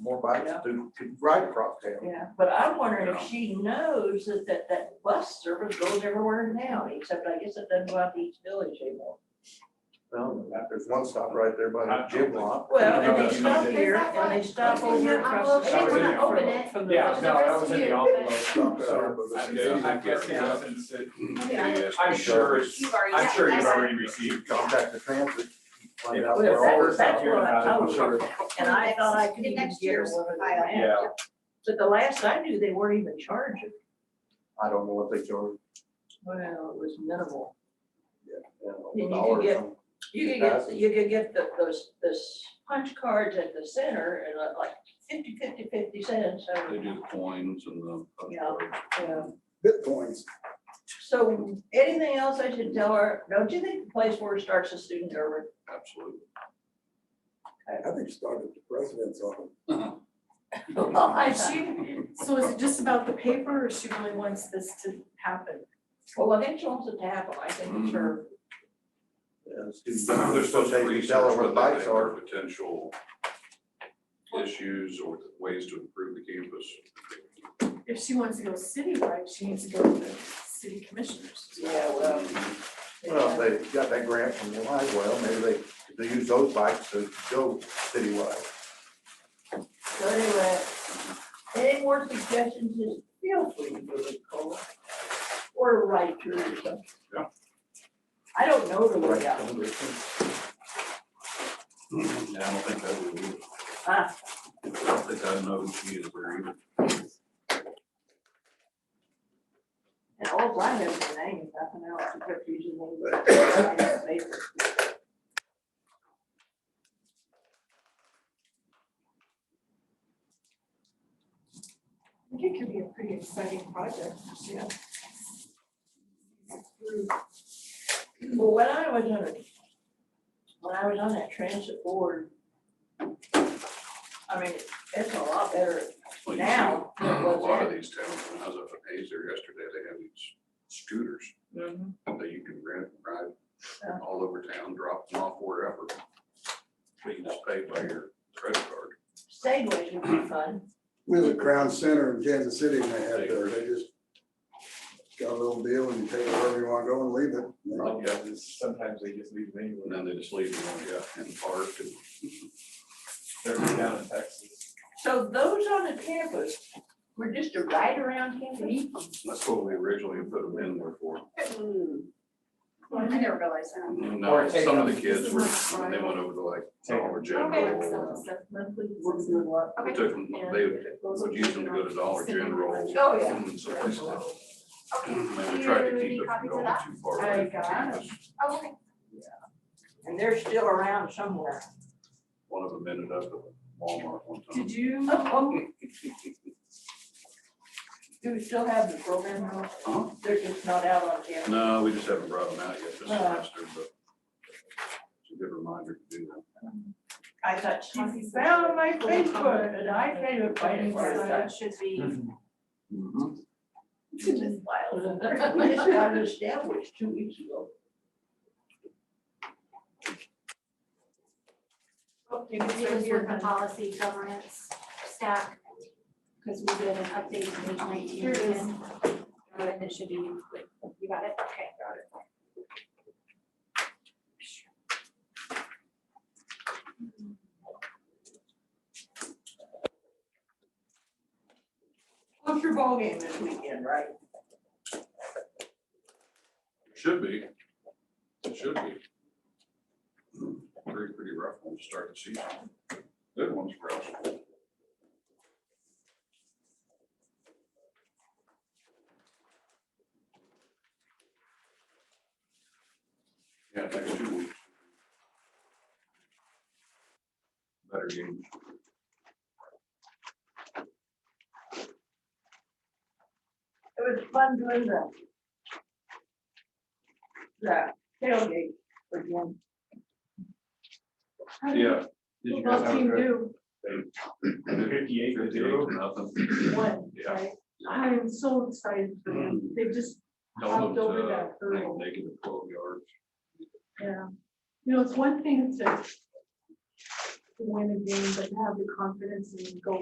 more bikes Yeah. to, to ride across town. Yeah, but I'm wondering if Yeah. she knows that, that, that bus service goes everywhere now, except I guess it doesn't go out to each village anymore. Well, there's one stop right there by the gym lot. Well, No, and no, they no, no. stop here, and they stop over here across the That was in street the from- envelope. from the- Yeah, no, that was in the envelope. Stop there, but I it's- guess- I guess it doesn't sit, Okay. I'm sure it's, You've already- I'm sure yeah, you've yeah. already received. Contact the transit. find out Yeah. where all Well, this that's stuff what I told is. her. And I thought I could The even next get year's one of file. them. Yeah, But the last I knew, they weren't even charging. I don't know what they charge. Well, it was minimal. you know, Then you could dollar or get- something. You could get, you could get the, those, those punch cards at the center and uh, like fifty, fifty, fifty cents, so. They do the coins and the. Yeah. yeah. Bitcoins. So anything else I should tell her? Don't you think the place where it starts the student over? Absolutely. I think started the president's office. I Is she, so is it just about the paper or she really wants this to happen? Well, if it wants it to happen, I think it's her. Yeah, students- They're supposed to they can tell research her where what the they bikes think are. are potential issues or ways to improve the campus. If she wants to go citywide, she needs to go to the city commissioners. Yeah, well. Well, if they got that grant from the light well, maybe they, they use those bikes to go citywide. So anyway, any more suggestions, just feel free to give us a call. Or write to her or something. Yeah. I don't know the Right. way out. Yeah, I don't think that would be. Ah. I don't think I know she is very. And all I have is the name, nothing else, except usually the name. I think it could be a pretty exciting project, yeah. Well, when I was on, when I was on that transit board, I mean, it's a lot better. Well, you see, Now, A lot what's of these towns, when I was up in Hazer yesterday, they have these scooters Mm-hmm. that you can rent, ride Yeah. all over town, drop them off wherever. But you just pay by your credit card. Segways would be fun. We have a Crown Center in Kansas City and they had, uh, they just got a little deal and you take it wherever you want to go and leave it. And Right, yeah. sometimes they just leave them And anywhere, then they just leave them, yeah, in the park and they're down in Texas. So those on the campus were just a ride around campus. That's what we originally put them in there for. I never realized that. Now, take uh, some of the them. kids were, when they went over to like Take them. Dollar General. We took them, they would use them to go to Dollar General. Oh, yeah. and someplace else. Okay. And Do we you tried to need keep it from copies of going that? too far away from I got campus. Oh, okay. And they're still around somewhere. One of them ended up at Walmart one time. Did you, Do we still have the program? though? Huh? They're just not out on campus. No, we just haven't brought them out yet this Uh. semester, but it's a good reminder to do that. I thought she found my Facebook and I tried to find it. for her. So it Should be. Goodness, Miles. We just got it established two weeks ago. you can It start was here, with the policy governance stack, because we did an update to page nineteen. Here it is. Uh, And it should be, you got it? Okay. Got it. What's your ballgame this weekend, right? Should be. It should be. Pretty, pretty rough one to start the season. Good ones for us. Yeah, next two weeks. Better game. It was fun doing the. The tailgate again. Yeah. Did you guys well, have team a do, fifty-eight to Fifty-eight zero? to nothing. one, Yeah. Mm. right? I'm so excited for them. They just Held Hopped them over to, that I think, hurdle. Negative twelve yards. Yeah, you know, it's one thing to to win a game, but to have the confidence and go